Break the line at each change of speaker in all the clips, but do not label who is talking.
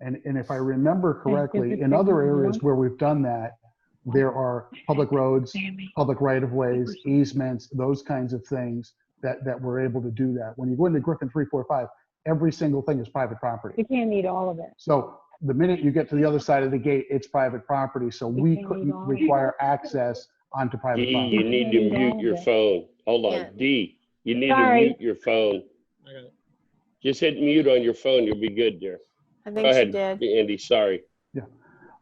And, and if I remember correctly, in other areas where we've done that, there are public roads, public right-of-ways, easements, those kinds of things that, that we're able to do that. When you go into Griffin 345, every single thing is private property.
You can't need all of it.
So the minute you get to the other side of the gate, it's private property, so
You
we
can't
couldn't
leave all-
require access onto
D,
private
you
property.
need to mute your phone. Hold
Yeah.
on, D, you need to
Sorry.
mute your phone.
I got it.
Just hit mute on your phone, you'll be good there.
I
Go
think she
ahead,
did.
Andy, sorry.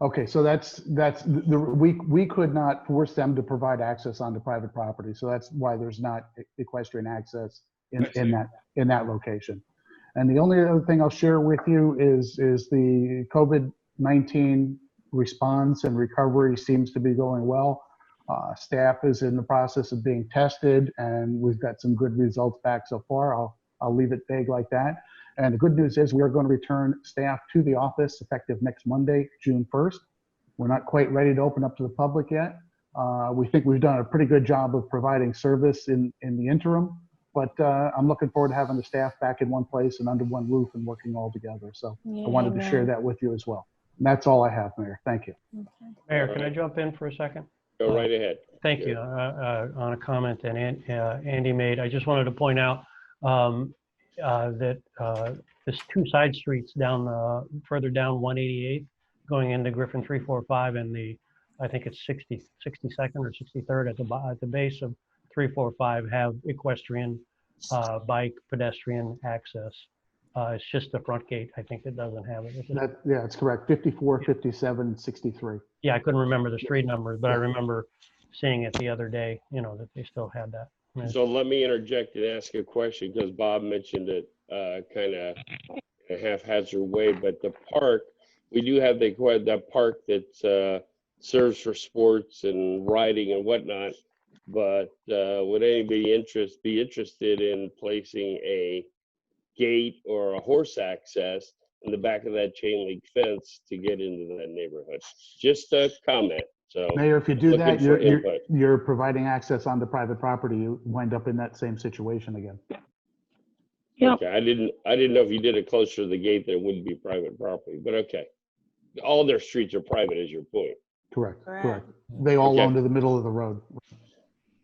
Okay, so that's, that's, the- the, we, we could not force them to provide access onto private property, so that's why there's not e, equestrian access in, in that, in that location. And the only other thing I'll share with you is, is the COVID-19 response and recovery seems to be going well. Uh, Staff is in the process of being tested, and we've got some good results back so far. I'll, I'll leave it vague like that. And the good news is we are going to return staff to the office effective next Monday, June 1st. We're not quite ready to open up to the public yet. Uh, We think we've done a pretty good job of providing service in, in the interim, but uh, I'm looking forward to having the staff back in one place and under one roof and working all together. So I wanted to share that with you as well. And that's all I have, Mayor. Thank you.
Mayor, can I jump in for a second?
Go right ahead.
Thank you, uh, uh, on a comment that An- uh, Andy made. I just wanted to point out um, uh, that uh, there's two side streets down, uh, further down 188, going into Griffin 345 and the, I think it's 60, 62nd or 63rd at the, bo- at the base of 345 have equestrian, uh, bike, pedestrian access. Uh, It's just the front gate, I think, that doesn't have it. It's an
That, yeah, that's correct. 54, 57, and 63.
yeah, I couldn't remember the street numbers, but I remember seeing it the other day, you know, that they still had that. Yeah.
So let me interject and ask a question, because Bob mentioned it, uh, kind of a haphazard way, but the park, we do have the, that park that, uh, serves for sports and riding and whatnot. But, uh, would anybody interest, be interested in placing a gate or a horse access in the back of that chain link fence to get into that neighborhood? Just a comment, so.
Mayor, if you do
Looking
that,
for
you're, you're,
input.
you're providing access onto private property. You wind up in that same situation again.
Yeah.
Okay, I didn't, I didn't know if you did it closer to the gate, that wouldn't be private property, but okay. All their streets are private is your point.
Correct,
Correct.
correct. They all
Okay.
own to the middle of the road.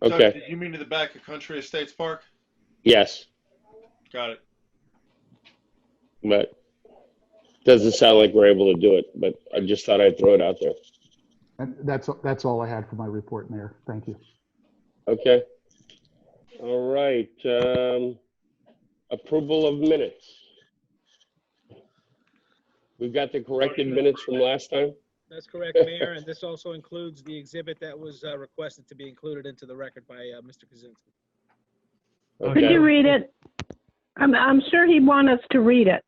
So,
Okay,
You mean to the back of Country Estates Park?
yes,
Got it.
but doesn't sound like we're able to do it, but I just thought I'd throw it out there.
And that's, that's all I had for my report, Mayor. Thank you.
Okay. All right, um, approval of minutes. We've got the corrected minutes from last time?
That's correct, Mayor, and this also includes the exhibit that was uh, requested to be included into the record by uh, Mr. Kaczynski.
Could you
Okay.
read it? I'm, I'm sure he'd want us to read it,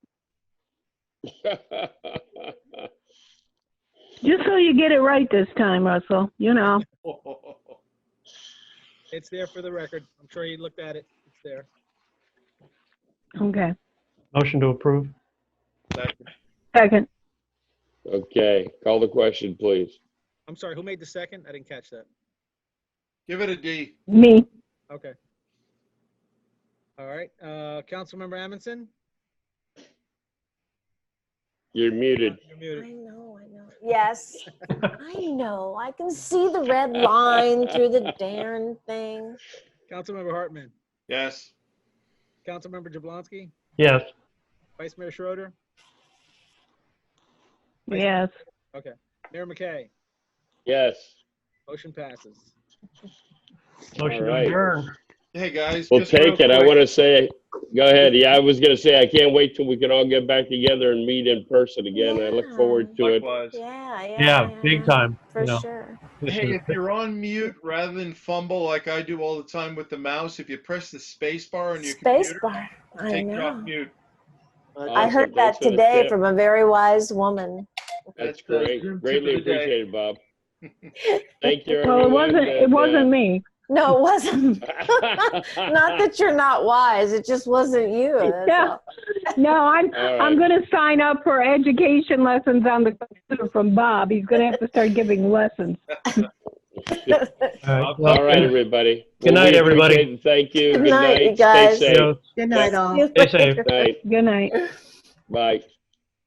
just so you get it right this time, Russell, you know.
It's there for the record. I'm sure he looked at it. It's there.
Okay,
Motion to approve?
Second.
second,
Okay, call the question, please.
I'm sorry, who made the second? I didn't catch that.
Give it a D.
me,
Okay. All right, uh, Councilmember Amundson?
You're muted.
You're
I
muted.
know, I know. Yes, I know. I can see the red line through the darn thing.
Councilmember Hartman?
Yes.
Councilmember Jablonski?
Yes.
Vice Mayor Schroeder?
yes.
Mayor McKay?
Yes.
Motion passes.
Motion to
right.
adjourn.
Hey, guys.
We'll
just real
take it. I
quick-
want to say, go ahead. Yeah, I was going to say, I can't wait till we can all get back together and meet in person again. I look forward to it.
Likewise.
Yeah, yeah.
Yeah, big time, you
For
know.
sure.
this
Hey,
is-
if you're on mute rather than fumble like I do all the time with the mouse, if you press the space bar on your
Space
computer,
bar. I
take it off
know.
mute.
I heard that
Awesome. Thanks for the
today
tip.
from a very wise woman.
That's
That's the
great.
Zoom tip
Greatly
of the day.
appreciated, Bob. Thank you.
Well, it
everyone,
wasn't, it
and, uh,
wasn't me.
No, it wasn't. Not that you're not wise, it just wasn't you. that's
Yeah.
all.
No, I'm,
All
I'm
right.
gonna sign up for education lessons on the computer from Bob. He's gonna have to start giving lessons.
All
All right, everybody.
Good night,
we
everybody.
appreciate it. Thank you.
Good
Good
night, you
night. Stay
guys.
You
safe.
know,
Good night, all.
Stay safe.
Night.
Good night.
Bye.